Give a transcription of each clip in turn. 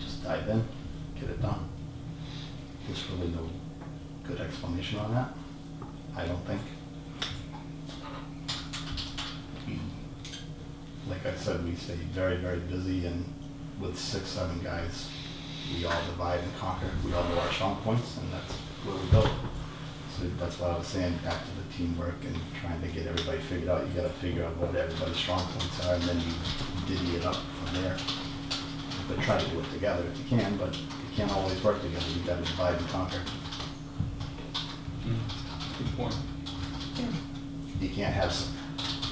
decide then, get it done. There's really no good explanation on that, I don't think. Like I said, we stay very, very busy and with six, seven guys, we all divide and conquer, we all know our strong points and that's where we go. So that's what I was saying, back to the teamwork and trying to get everybody figured out, you gotta figure out what everybody's strong points are and then you divvy it up from there but try to do it together if you can, but you can't always work together, you gotta divide and conquer. Good point. You can't have s-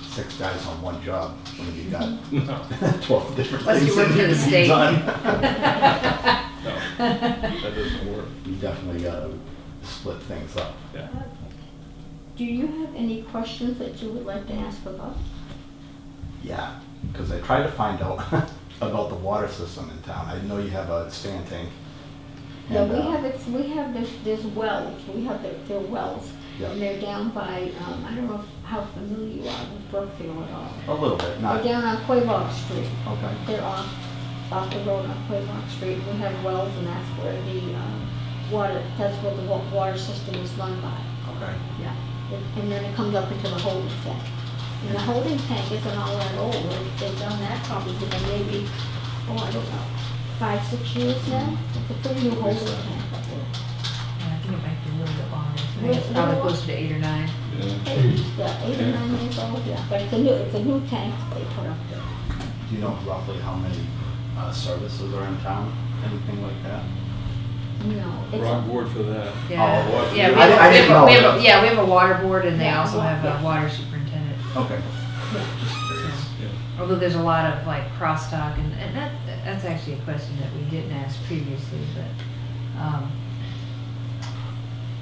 six guys on one job when you've got No, twelve different Unless you things that work for need to be the state. done. that doesn't work. You definitely gotta split things up. Yeah. Do you have any questions that you would like to ask of us? Yeah, because I tried to find out about the water system in town. I know you have a stand tank. No, and, we uh, have, it's, we have this, there's wells, we have their, their wells. Yeah. And they're down by, um, I don't know if- how familiar you are with Brookfield at all. A little bit, They're not, down on Quabog Street. okay, They're off, off the road on Quabog Street. We have wells and that's where the, um, water, that's where the wa- water system is run by. okay. Yeah, and- and then it comes up into the holding tank. And the holding tank isn't all that old, They- they've done that probably for maybe, oh, I don't know, five, six years now? It's a pretty new holding tank up there. Yeah, I think it might be a little bit longer. I think Wait, It's probably no. closer to eight or nine. Oh, Yeah. Eight- Yeah, eight or nine years old, yeah, but it's a new, it's a new tank that they put up there. Do you know roughly how many uh, services are in town, anything like that? No, it's, We're on a- board for that. Yeah. what- Yeah, we I- I have, didn't we have- we know. have, a- yeah, we have a water board and they Yeah, also wa- have yeah. a water superintendent. Okay. yeah. Just curious. Yeah. Although there's a lot of like crosstalk and, and that, that's actually a question that we didn't ask previously, but, um,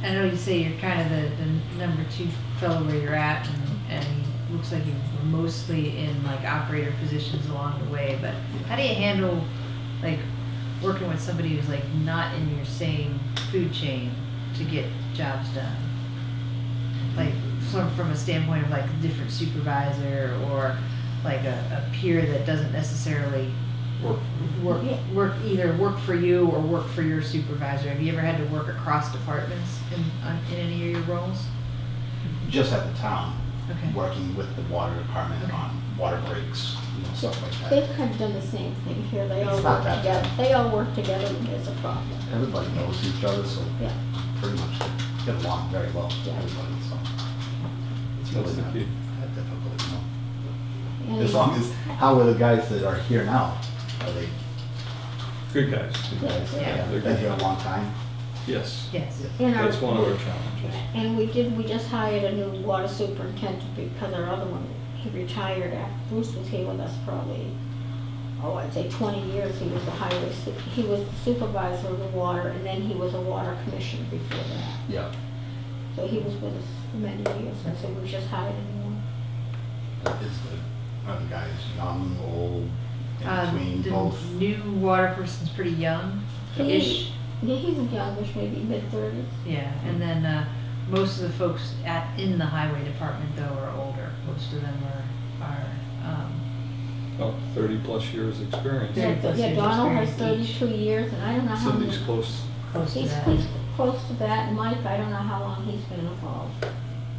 I know you say you're kind of the, the number two fellow where you're at and, and it looks like you were mostly in like operator positions along the way, but how do you handle like working with somebody who's like not in your same food chain to get jobs done? like from, from a standpoint of like a different supervisor or like a, a peer that doesn't necessarily Work. work Yeah. work either work for you or work for your supervisor. Have you ever had to work across departments in on, in any of your roles? Just at the town, Okay. working with the water department Okay. on water breaks, you know, stuff like that. they've kind of done the same thing here, they all It's not work that together, bad. they all work together when there's a problem, Everybody knows each other, so yeah. pretty much get along very well with everybody, so. It's That's really the not key. that difficult, you know. And- As long as, how are the guys that are here now? Are they Good guys. good guys? Yeah. They've been here a long time? Yes. Yes. and our- That's one of our challenges. And we did, we just hired a new water superintendent because our other one, he retired after Bruce was here with us probably, oh, I'd say twenty years, he was the highway, su- he was supervisor of the water, and then he was a water commissioner before that. Yeah. So he was with us for many years, and so we just hired a new one. That is the, are the guys young, old, in Um, between, the both? new water person's pretty young ish. He, yeah, he's youngish, maybe mid-thirties. Yeah. And then uh, most of the folks at in the highway department though are older. Most of them are are um, About thirty plus years experience. Yeah. plus Yeah, years Donald has experience each. thirty-two years, and I don't know how many. Cindy's close. close to He's, that. he's close to that, and Mike, I don't know how long he's been involved. Well,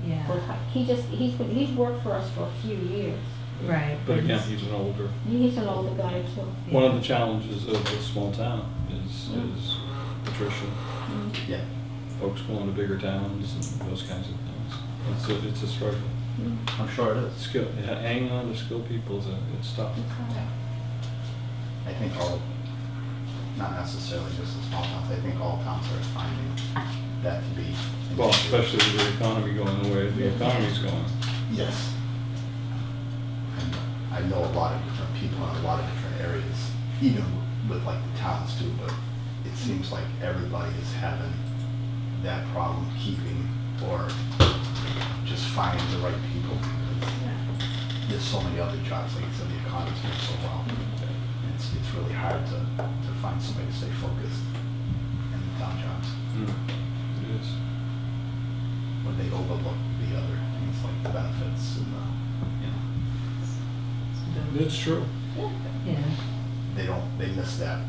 Yeah. He just, he's, been- he's worked for us for a few years. Right. But again, he's an older. He's an older guy too. One of the challenges of a small town is, is attrition. Mm-hmm. Yeah. Folks going to bigger towns and those kinds of things. It's a, it's a struggle. I'm sure it is. Skill, yeah, hanging on to skilled people is a, it's tough. Yeah. I think all, not necessarily just the small towns, I think all towns are finding that to be. an Well, issue. especially with the economy going the way the economy's going. Yes. And I know a lot of different people in a lot of different areas, even with like the towns too, but it seems like everybody is having that problem keeping or just finding the right people. There's so many other jobs, like I said, the economy's doing so well. It's, it's really hard to, to find somebody to stay focused in the town jobs Mm. It is. when they overlook the other things like the benefits and the, you know. So- It's true. Yeah. they don't, they miss that